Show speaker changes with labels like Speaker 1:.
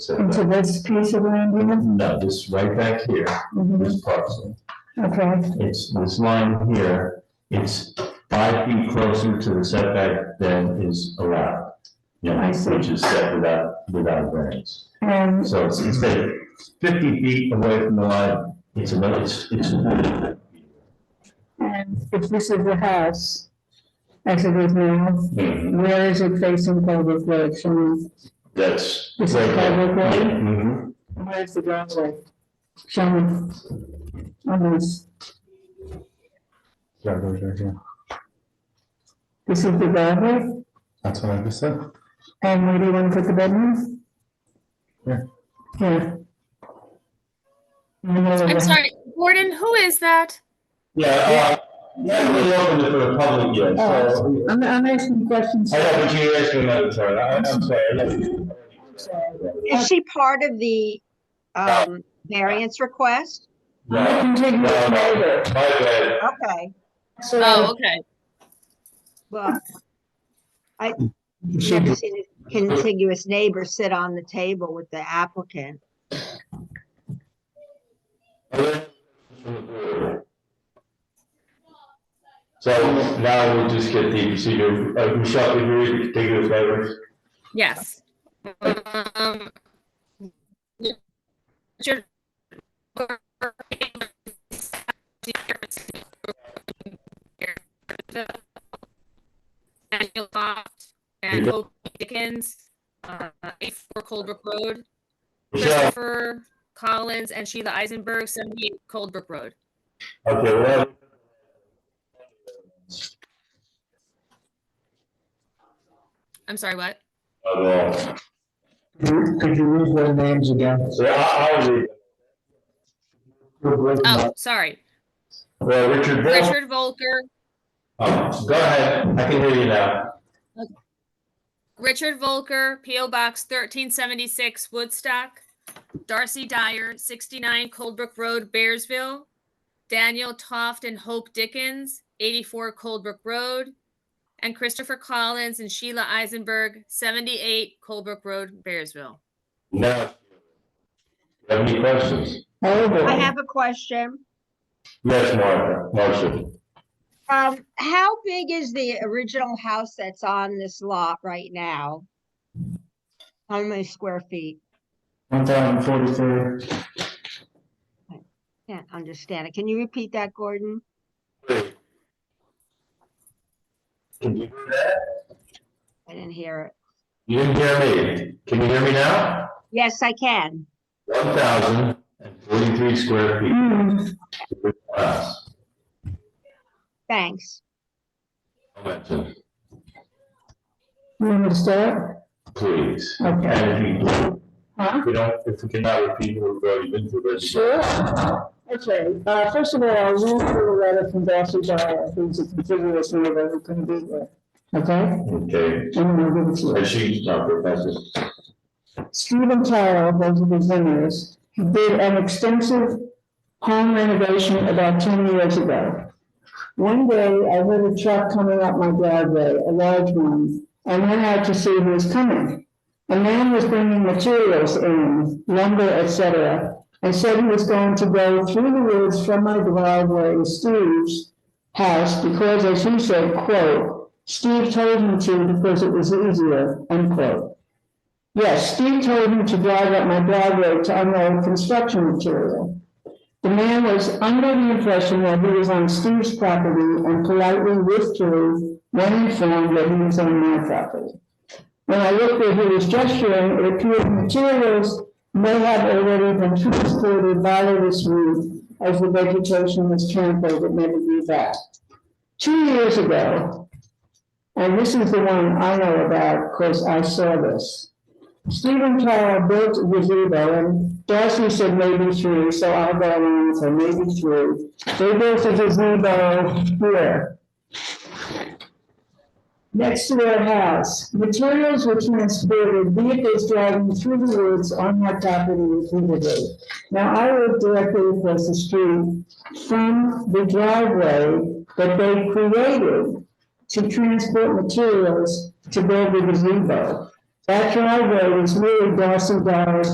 Speaker 1: So
Speaker 2: into
Speaker 1: that-
Speaker 2: this piece of land here?
Speaker 1: No, this right back here,
Speaker 2: Mhm.
Speaker 1: this parcel,
Speaker 2: Okay,
Speaker 1: it's this line here, it's five feet closer to the setback than is allowed. You know,
Speaker 2: I see.
Speaker 1: Which is set without, without variance.
Speaker 2: and,
Speaker 1: So it's, instead of fifty feet away from the line, it's another, it's, it's.
Speaker 2: and if this is the house, as it is now,
Speaker 1: Mhm.
Speaker 2: where is it facing public road? Show me,
Speaker 1: That's.
Speaker 2: This is public way?
Speaker 1: Mhm.
Speaker 2: where's the driveway? Show me. On this,
Speaker 3: Yeah, those right here.
Speaker 2: this is the driveway,
Speaker 3: That's what I just said.
Speaker 2: and where do you want to put the bedrooms?
Speaker 3: Here.
Speaker 2: Here. In the middle of the
Speaker 4: I'm
Speaker 2: house.
Speaker 4: sorry, Gordon, who is that?
Speaker 1: Yeah, uh, yeah, we opened it for the public yet, so.
Speaker 2: Uh, I'm, I'm asking questions.
Speaker 1: I know, but you asked me another time, I- I'm sorry. I left you.
Speaker 5: Is she part of the um, variance request?
Speaker 2: I can take you
Speaker 1: No, no,
Speaker 2: later.
Speaker 1: My bad.
Speaker 5: Okay,
Speaker 2: So-
Speaker 4: Oh, okay.
Speaker 5: well, I never seen a contiguous neighbor sit on the table with the applicant.
Speaker 1: So now we'll just get the procedure, uh, Michelle, if you take your favors.
Speaker 4: Yes. Um, Richard- Daniel Croft and Hope Dickens, uh, eight four Coldbrook Road,
Speaker 1: Michelle,
Speaker 4: Christopher Collins and Sheila Eisenberg, seventy-eight Coldbrook Road.
Speaker 1: okay, well.
Speaker 4: I'm sorry, what?
Speaker 1: uh,
Speaker 3: Could you read their names again?
Speaker 1: So I, I was,
Speaker 4: Oh, sorry.
Speaker 1: well, Richard. Bell-
Speaker 4: Richard Volker,
Speaker 1: Um, Go ahead, I can hear you now.
Speaker 4: Richard Volker, P.O. Box 1376, Woodstock. Darcy Dyer, 69 Coldbrook Road, Bearsville. Daniel Toft and Hope Dickens, 84 Coldbrook Road. And Christopher Collins and Sheila Eisenberg, 78 Coldbrook Road, Bearsville.
Speaker 1: Now, have any questions?
Speaker 2: Over.
Speaker 5: I have a question.
Speaker 1: Yes, Martha, Marcia.
Speaker 5: Um, How big is the original house that's on this lot right now? How many square feet?
Speaker 3: One thousand forty-three.
Speaker 5: Can't understand it. Can you repeat that, Gordon?
Speaker 1: Can you hear that?
Speaker 5: I didn't hear it.
Speaker 1: You didn't hear me. Can you hear me now?
Speaker 5: Yes, I can.
Speaker 1: One thousand and forty-three square feet.
Speaker 2: Hmm.
Speaker 1: Wow.
Speaker 5: Thanks.
Speaker 1: Momentum,
Speaker 2: You want me to start?
Speaker 1: Please.
Speaker 2: Okay.
Speaker 1: And if you-
Speaker 2: Huh?
Speaker 1: if we don't, if we cannot repeat what we've already been through, let's-
Speaker 2: Sure. Okay, uh, first of all, I'll read through the letter from Darcy Dyer, who's a contiguous neighbor who couldn't be there. Okay?
Speaker 1: Okay,
Speaker 2: And then I'll give it to you.
Speaker 1: and she's not professor.
Speaker 2: Stephen Carroll, those are the winners, he did an extensive home renovation about ten years ago. One day, I heard a truck coming up my driveway, a large one, and went out to see who was coming. A man was bringing materials in, lumber, etc., and said he was going to go through the woods from my driveway to Steve's house because, as he said, quote, Steve told him to because it was easier, unquote. Yes, Steve told him to drive up my driveway to unload construction material. The man was under the impression that he was on Steve's property and politely withdrew when informed that he was on my property. When I looked where he was gesturing, it appeared materials may have already been transported by the this route as the vegetation was trampled and never grew back. Two years ago, and this is the one I know about because I saw this. Stephen Carroll built a gazebo, and Darcy said maybe three, so I'll go along with her, maybe three. They built a gazebo here. Next to their house, materials were transported, vehicles driving through the woods on my property repeatedly. Now, I live directly across the street from the driveway that they created to transport materials to build the gazebo. That driveway was really Dawson Dyer's